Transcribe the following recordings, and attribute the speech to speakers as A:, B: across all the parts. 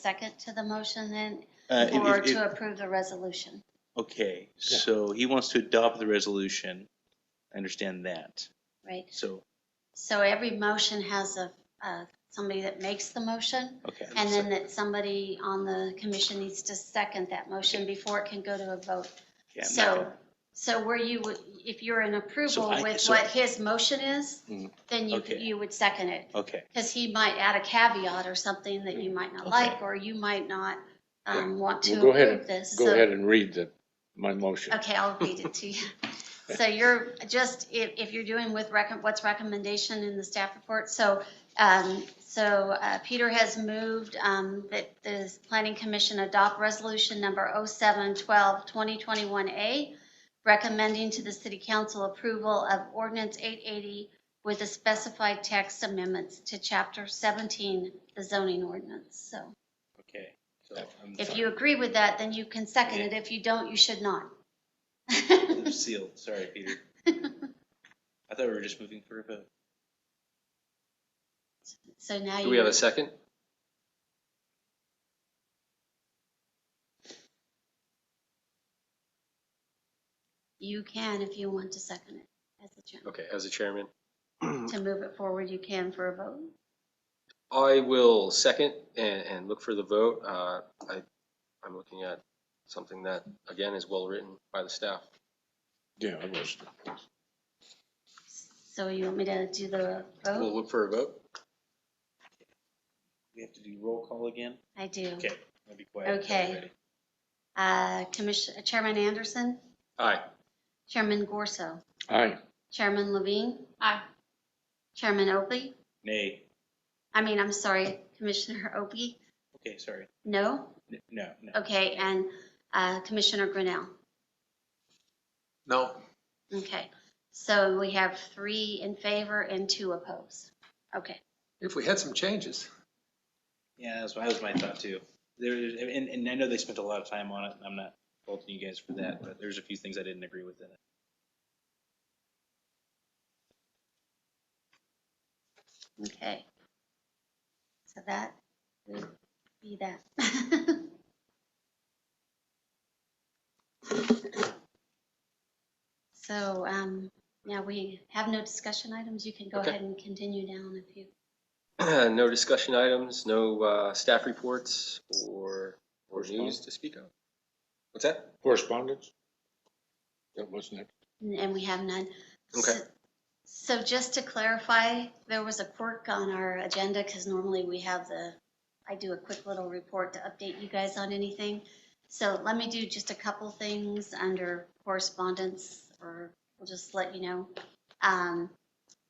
A: second to the motion then,
B: Uh, if-
A: or
B: if- if-
A: to approve the resolution?
B: Okay, so he wants to adopt the resolution. I understand that.
A: Right,
B: So,
A: so every motion has a, uh, somebody that makes the motion,
B: okay.
A: and then that somebody on the commission needs to second that motion before it can go to a vote.
B: Yeah, I'm not
A: So, so where you would, if you're in approval
B: I-
A: with
B: so-
A: what his motion is,
B: Mm,
A: then you,
B: okay.
A: you would second it.
B: gonna- Okay,
A: Because he might add a caveat or something that you might not
B: Mm-hmm. Okay.
A: like, or you might not um, want to
C: Well, go ahead
A: approve this.
C: Go
A: So-
C: ahead and read the, my motion.
A: Okay, I'll read it to you. So you're just, if, if you're doing with recom, what's recommendation in the staff report, so, um, so, uh, Peter has moved, um, that the planning commission adopt resolution number oh seven twelve twenty twenty-one A, recommending to the city council approval of ordinance eight eighty with the specified text amendments to chapter seventeen, the zoning ordinance, so.
B: okay. So I'm
A: If
B: sorry.
A: you agree with that, then you can second it, if you don't, you should not.
B: I'm Sealed, sorry, Peter. I thought we were just moving for a vote.
A: So now you.
D: Do we have a second?
A: You can if you want to second it as the chairman.
D: Okay, as a chairman. Hmm.
A: To move it forward, you can for a vote.
D: I will second and, and look for the vote. Uh, I, I'm looking at something that, again, is well-written by the staff.
C: Yeah, I was.
A: So you want me to do the
D: We'll
A: vote?
D: look for a vote.
B: We have to do roll call again?
A: I do.
B: Okay, I'll be quiet. until
A: Okay.
B: we're ready.
A: Uh, Commissioner, Chairman Anderson,
D: Aye.
A: Chairman Gorso,
C: Aye,
A: Chairman Levine. Aye. Chairman Opie,
B: Nay,
A: I mean, I'm sorry, Commissioner Opie,
B: okay, sorry.
A: no?
B: N- No, no.
A: Okay, and uh, Commissioner Grinnell.
D: No.
A: Okay, so we have three in favor and two opposed. Okay,
D: If we had some changes.
B: Yeah, that's, that was my thought too. There, and, and I know they spent a lot of time on it, and I'm not faulting you guys for that, but there's a few things I didn't agree with in it.
A: okay. So that would be that. So um, now we have no discussion items. You can go
D: Okay.
A: ahead and continue down if you,
D: No discussion items, no, uh, staff reports or, or news to speak of. What's that?
C: correspondence? That wasn't it.
A: and we have none.
D: Okay.
A: S- So just to clarify, there was a quirk on our agenda because normally we have the, I do a quick little report to update you guys on anything. So let me do just a couple things under correspondence or we'll just let you know. Um,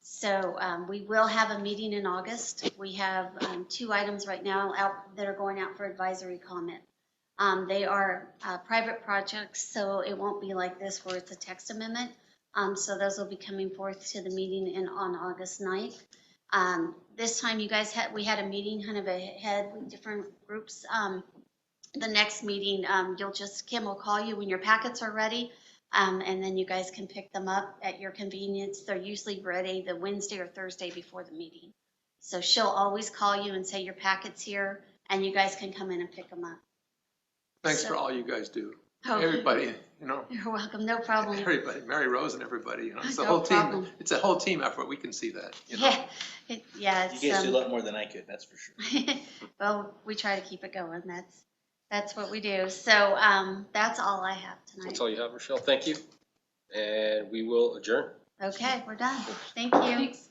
A: So um, we will have a meeting in August. We have um, two items right now out that are going out for advisory comment. Um, They are uh, private projects, so it won't be like this where it's a text amendment. Um, So those will be coming forth to the meeting in, on August 9th. Um, This time you guys had, we had a meeting kind of ahead with different groups. Um, The next meeting, um, you'll just, Kim will call you when your packets are ready. um, And then you guys can pick them up at your convenience. They're usually ready the Wednesday or Thursday before the meeting. So she'll always call you and say your packet's here and you guys can come in and pick them up.
E: Thanks
A: So-
E: for all you guys do.
A: Oh,
E: Everybody, you know,
A: You're welcome, no problem.
E: everybody, Mary Rose and everybody, you know, it's a
A: No
E: whole team.
A: problem.
E: It's a whole team effort. We can see that, you know.
A: Yeah, it- yeah.
B: You
A: it's,
B: guys
A: um,
B: do a lot more than I could, that's for sure.
A: Well, we try to keep it going. That's, that's what we do. So um, that's all I have
D: That's
A: tonight.
D: all you have, Rochelle. Thank you. And we will adjourn.
A: Okay, we're done. Thank you.